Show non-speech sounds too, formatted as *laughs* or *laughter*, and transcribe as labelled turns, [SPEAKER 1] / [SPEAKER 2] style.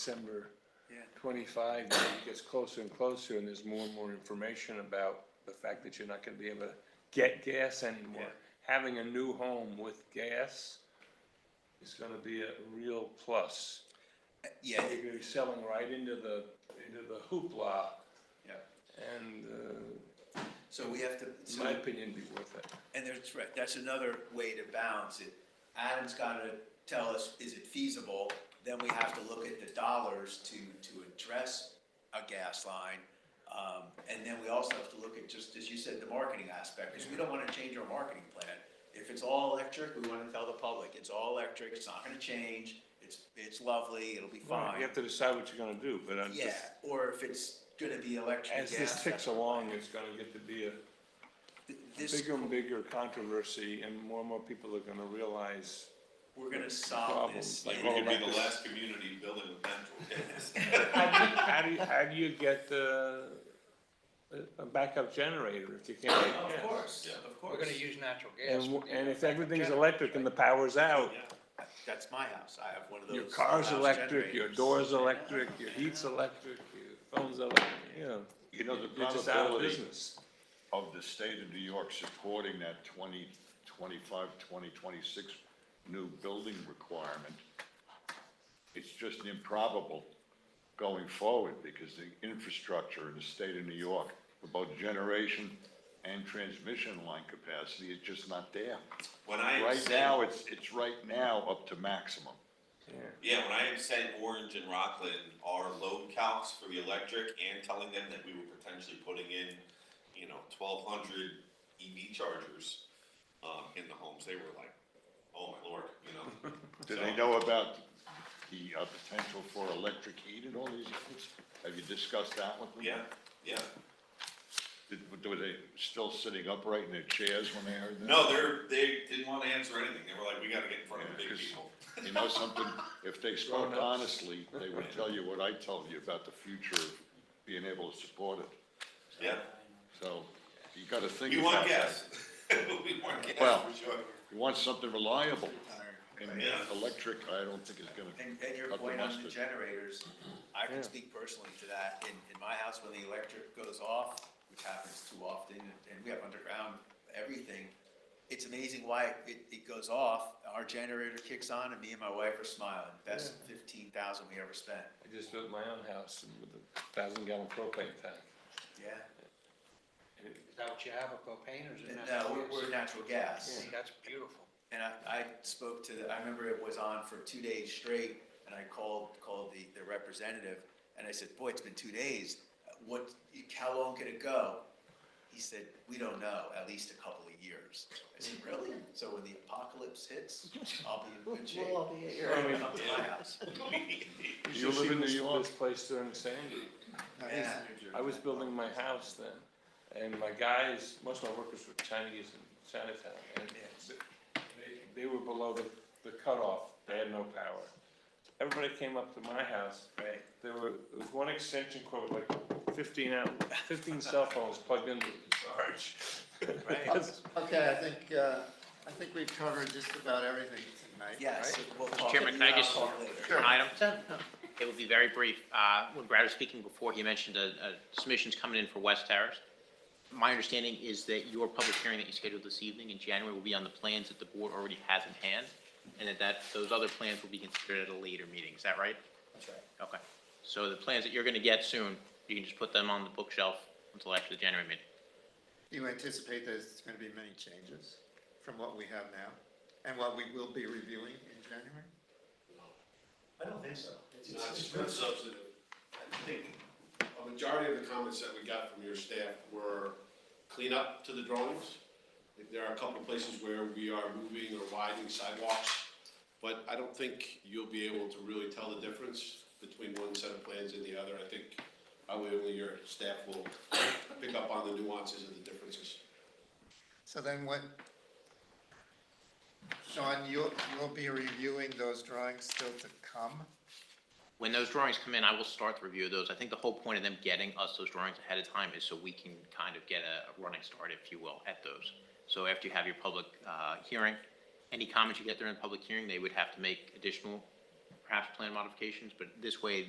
[SPEAKER 1] December
[SPEAKER 2] Yeah.
[SPEAKER 1] twenty-five, date gets closer and closer, and there's more and more information about the fact that you're not gonna be able to get gas anymore.
[SPEAKER 2] Yeah.
[SPEAKER 1] Having a new home with gas is gonna be a real plus.
[SPEAKER 2] Yeah,
[SPEAKER 1] You're gonna be selling right into the, into the hoopla,
[SPEAKER 2] yeah.
[SPEAKER 1] and, uh,
[SPEAKER 2] So we have to,
[SPEAKER 1] in
[SPEAKER 2] so,
[SPEAKER 1] my opinion, be worth it.
[SPEAKER 2] and there's, right, that's another way to balance it. Adam's gotta tell us, is it feasible? Then we have to look at the dollars to, to address a gas line. Um, and then we also have to look at, just as you said, the marketing aspect, because we don't wanna change our marketing plan. If it's all electric, we wanna tell the public, it's all electric, it's not gonna change, it's, it's lovely, it'll be
[SPEAKER 1] You
[SPEAKER 2] fine.
[SPEAKER 1] have to decide what you're gonna do, but I'm
[SPEAKER 2] Yeah,
[SPEAKER 1] just,
[SPEAKER 2] or if it's gonna be electric,
[SPEAKER 1] as
[SPEAKER 2] gas.
[SPEAKER 1] this ticks
[SPEAKER 2] that's-
[SPEAKER 1] along, it's gonna get to be a
[SPEAKER 2] th- This,
[SPEAKER 1] bigger and bigger controversy, and more and more people are gonna realize
[SPEAKER 2] we're gonna solve this.
[SPEAKER 1] Problems, like
[SPEAKER 2] in-
[SPEAKER 3] We
[SPEAKER 1] all
[SPEAKER 3] could be
[SPEAKER 1] like
[SPEAKER 3] the
[SPEAKER 1] this.
[SPEAKER 3] last community building with natural gas.
[SPEAKER 1] How do you, how do you, how do you get the, a- a backup generator if you can't get
[SPEAKER 2] Of
[SPEAKER 1] gas?
[SPEAKER 2] course,
[SPEAKER 3] Yeah.
[SPEAKER 2] of
[SPEAKER 4] We're
[SPEAKER 2] course.
[SPEAKER 4] gonna use natural
[SPEAKER 1] And,
[SPEAKER 4] gas. uh,
[SPEAKER 1] w-
[SPEAKER 4] we're gonna
[SPEAKER 1] and
[SPEAKER 4] go
[SPEAKER 1] if
[SPEAKER 4] back to
[SPEAKER 1] everything's
[SPEAKER 4] generators,
[SPEAKER 1] electric and the power's out,
[SPEAKER 2] That's my house, I have one of those.
[SPEAKER 1] your car's
[SPEAKER 2] house
[SPEAKER 1] electric, your
[SPEAKER 2] generators.
[SPEAKER 1] door's electric, your heat's electric, your phone's electric, you know.
[SPEAKER 5] You know, the
[SPEAKER 1] You're just out of
[SPEAKER 5] probability
[SPEAKER 1] business.
[SPEAKER 5] of the state of New York supporting that 20, 25, 20, 26 new building requirement, it's just improbable going forward because the infrastructure in the state of New York for both generation and transmission line capacity is just not there.
[SPEAKER 3] When I am
[SPEAKER 5] Right
[SPEAKER 3] saying,
[SPEAKER 5] now, it's, it's right now up to maximum.
[SPEAKER 3] yeah, when I am saying Orange and Rockland are load calcs for the electric and telling them that we were potentially putting in, you know, twelve hundred EV chargers, um, in the homes, they were like, oh my lord, you
[SPEAKER 5] *laughs*
[SPEAKER 3] know?
[SPEAKER 5] Do
[SPEAKER 3] So-
[SPEAKER 5] they know about the uh, potential for electric heat and all these things? Have you discussed that with them?
[SPEAKER 3] Yeah, yeah.
[SPEAKER 5] Did- Were they still sitting upright in their chairs when they heard that?
[SPEAKER 3] No, they're, they didn't wanna answer anything. They were like, we gotta get in front of the
[SPEAKER 5] Yeah,
[SPEAKER 3] big
[SPEAKER 5] 'cause
[SPEAKER 3] people.
[SPEAKER 5] You know something, if they spoke
[SPEAKER 1] Grown-ups.
[SPEAKER 5] honestly, they would tell you what I told you about the future of being able to support it.
[SPEAKER 3] Yeah,
[SPEAKER 5] So you gotta think
[SPEAKER 3] we want
[SPEAKER 5] about that.
[SPEAKER 3] gas. *laughs* We want gas
[SPEAKER 5] Well,
[SPEAKER 3] for sure. *laughs*
[SPEAKER 5] You want something reliable, and
[SPEAKER 3] Yeah.
[SPEAKER 5] electric, I don't think is gonna
[SPEAKER 2] uh, And, and your
[SPEAKER 5] cut the
[SPEAKER 2] point on the
[SPEAKER 5] mustard.
[SPEAKER 2] generators, I
[SPEAKER 1] Yeah.
[SPEAKER 2] can speak personally to that. In, in my house, when the electric goes off, which happens too often, and we have underground everything, it's amazing why it, it goes off. Our generator kicks on and me and my wife are smiling. Best fifteen thousand we ever spent.
[SPEAKER 1] I just built my own house with a thousand gallon propane tank.
[SPEAKER 2] Yeah.
[SPEAKER 4] Is that what you have, a propane or is it
[SPEAKER 2] No,
[SPEAKER 4] natural
[SPEAKER 2] uh, we're, we're
[SPEAKER 4] gas?
[SPEAKER 2] natural gas.
[SPEAKER 4] See, that's beautiful.
[SPEAKER 2] And I, I spoke to, the I remember it was on for two days straight, and I called, called the, the representative, and I said, boy, it's been two days. What, how long could it go? He said, we don't know, at least a couple of years. I said, really? So when the apocalypse hits, I'll be in good shape. I'll be here. my house.
[SPEAKER 5] You live in New York?
[SPEAKER 1] This place during Sandy.
[SPEAKER 2] Yeah.
[SPEAKER 1] I was building my house then, and my guys, most of my workers were Chinese in Chinatown, and they, they were below the, the cutoff, they had no power. Everybody came up to my house,
[SPEAKER 2] Right.
[SPEAKER 1] there were, there was one extension cord with like fifteen out, fifteen cell phones plugged into the charge. *laughs*
[SPEAKER 2] Right.
[SPEAKER 1] That's-
[SPEAKER 6] Okay, I think, uh, I think we've covered just about everything tonight,
[SPEAKER 2] Yes,
[SPEAKER 6] right?
[SPEAKER 2] we'll talk.
[SPEAKER 7] Chairman, can I
[SPEAKER 2] I'll
[SPEAKER 7] just-
[SPEAKER 2] talk later.
[SPEAKER 7] One item. It will be very brief. Uh, When Brad was speaking before, he mentioned uh, uh, submissions coming in for West Terrace. My understanding is that your public hearing that you scheduled this evening in January will be on the plans that the board already has in hand, and that that, those other plans will be considered at a later meeting. Is that right?
[SPEAKER 2] That's right.
[SPEAKER 7] Okay. So the plans that you're going to get soon, you can just put them on the bookshelf until after the January meeting.
[SPEAKER 6] Do you anticipate there's gonna be many changes from what we have now and what we will be reviewing in January?
[SPEAKER 8] I don't think so.
[SPEAKER 9] Not super substantive. I think a majority of the comments that we got from your staff were clean up to the drawings. I think There are a couple of places where we are moving or widening sidewalks, but I don't think you'll be able to really tell the difference between one set of plans and the other. I think probably only your staff will pick up on the nuances and the differences.
[SPEAKER 6] So then what? Sean, you'll, you'll be reviewing those drawings still to come?
[SPEAKER 7] When those drawings come in, I will start the review of those. I think the whole point of them getting us those drawings ahead of time is so we can kind of get a running start, if you will, at those. So after you have your public uh, hearing, any comments you get during the public hearing, they would have to make additional, perhaps plan modifications, but this way,